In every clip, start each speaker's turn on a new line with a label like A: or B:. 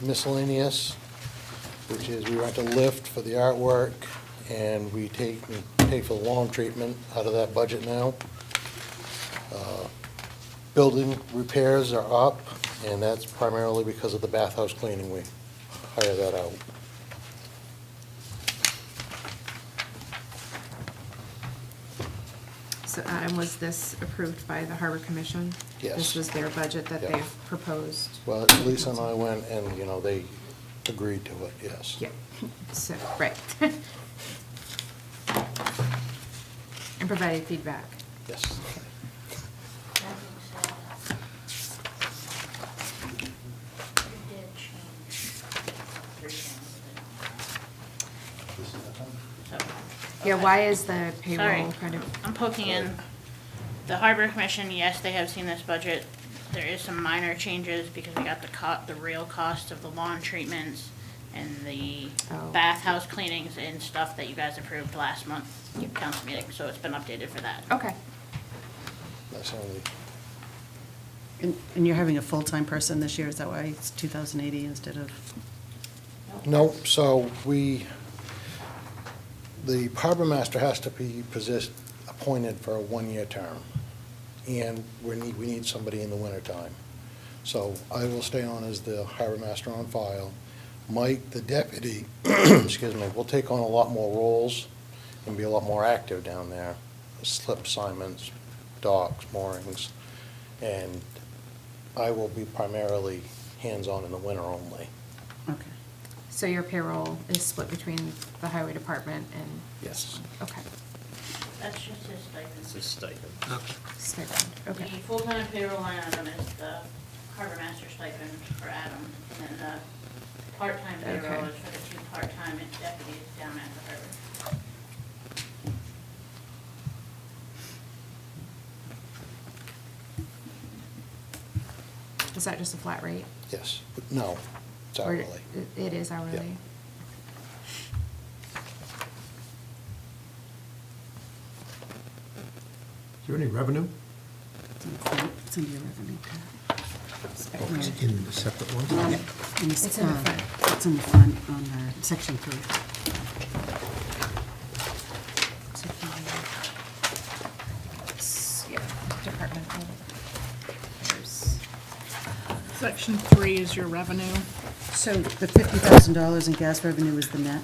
A: miscellaneous, which is we rent a lift for the artwork, and we take, we pay for the lawn treatment out of that budget now. Uh, Building repairs are up, and that's primarily because of the bathhouse cleaning. We hire that out.
B: So Adam, was this approved by the Harbor Commission?
A: Yes.
B: This was their budget that
A: Yeah.
B: they've proposed?
A: Well, Lisa and I went, and, you know, they agreed to it, yes.
B: Yeah, so, right. And provided feedback.
A: Yes.
B: Yeah, why is the
C: Sorry, Um,
B: payroll kind of,
C: I'm poking in. The Harbor Commission, yes, they have seen this budget. There is some minor changes because we got the co, the real cost of the lawn treatments and the
B: Oh.
C: bathhouse cleanings and stuff that you guys approved last month, council meeting, so it's been updated for that.
B: okay,
A: That's the only,
D: And and you're having a full-time person this year, is that why it's 2,080 instead of,
A: no, so we, the harbor master has to be possessed, appointed for a one-year term, and we need, we need somebody in the wintertime. So I will stay on as the harbor master on file. Mike, the deputy, excuse me, will take on a lot more roles and be a lot more active down there. Slip assignments, docks, moorings, and I will be primarily hands-on in the winter only.
D: okay.
B: so your payroll is split between the highway department and?
A: Yes.
B: Okay,
C: That's just his stipend.
B: stipend, okay,
C: The full-time payroll line item is the harbor master stipend for Adam, and then the part-time payroll
B: Okay.
C: is for the two part-time deputies down at the harbor.
B: is that just a flat rate?
A: Yes, but no, it's
B: Or
A: hourly.
B: it- It is hourly?
E: Is there any revenue?
D: It's in your revenue tab.
E: Oh, it's in the separate one?
D: And
B: It's in the
D: uh,
B: front.
D: It's in the front on uh, section three.
B: So if you- it's- Yeah, departmental. There's-
F: Section three is your revenue.
D: So the $50,000 in gas revenue is the net?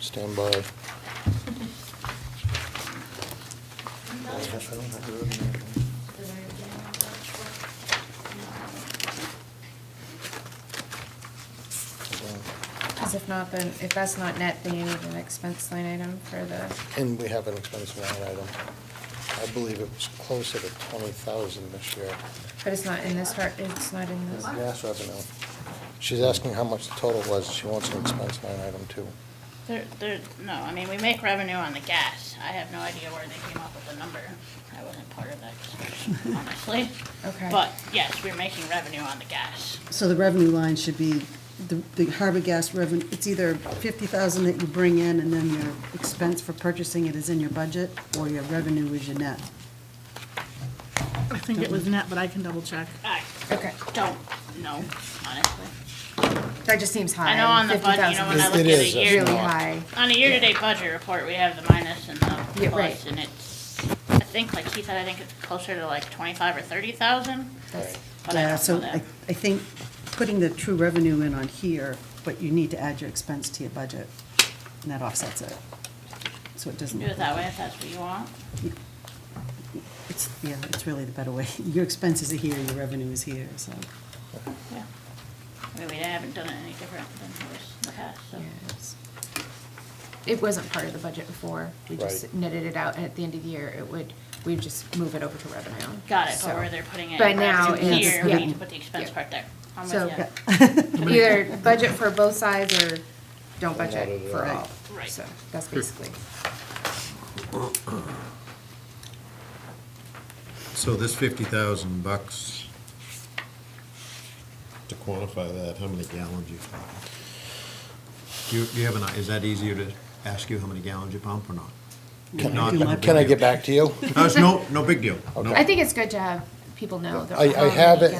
A: Stand by.
B: Because if not, then, if that's not net, then you need an expense line item for the,
A: And we have an expense line item. I believe it was closer to twenty thousand this year,
B: but it's not in this part, it's not in this.
A: gas revenue. She's asking how much the total was, she wants an expense line item too.
C: There, there, no, I mean, we make revenue on the gas. I have no idea where they came up with the number. I wasn't part of that discussion, honestly.
B: Okay.
C: But yes, we're making revenue on the gas.
D: So the revenue line should be, the- the harbor gas revenue, it's either 50,000 that you bring in and then your expense for purchasing it is in your budget, or your revenue is your net.
F: I think it was net, but I can double check.
C: I
B: Okay,
C: don't know, honestly.
B: that just seems high.
C: I know on the budget, you know, when I look
A: It
C: at a
A: is, it's
C: year,
B: Really
A: not.
B: high.
C: on a year-to-date budget report, we have the minus and the
B: Yeah, right.
C: plus, and it's, I think, like he said, I think it's closer to like twenty-five or thirty thousand,
B: That's-
C: but I
D: Yeah,
C: don't know
D: so I,
C: that.
D: I think putting the true revenue in on here, but you need to add your expense to your budget, and that offsets it. So it doesn't.
C: Do it that way if that's what you want.
D: It's, yeah, it's really the better way. Your expenses are here, your revenue is here, so.
C: Yeah. I mean, we haven't done it any different than it was in the past, so.
B: yes. It wasn't part of the budget before. We just
A: Right.
B: netted it out, and at the end of the year, it would, we'd just move it over to revenue.
C: Got it, but
B: So-
C: where they're putting it
B: But
C: in
B: now
C: revenue
B: it's-
C: here, we
B: yeah.
C: need to put the expense
B: Yeah.
C: part there. I'm with
B: So-
C: ya.
B: Yeah. Either budget for both sides or don't budget
A: Not at
B: for
A: all.
B: all.
C: Right.
B: So that's basically,
E: So this fifty thousand bucks, to quantify that, how many gallons you pump? Do you, do you have an, is that easier to ask you how many gallons you pump or not? If
D: Can I-
E: not,
D: can
E: no
D: I-
E: big
A: Can I
E: deal.
A: get back to you?
E: No, it's no, no big deal. No
B: I think it's good to have people know. that
A: I, I
B: we're
A: have
B: already
A: it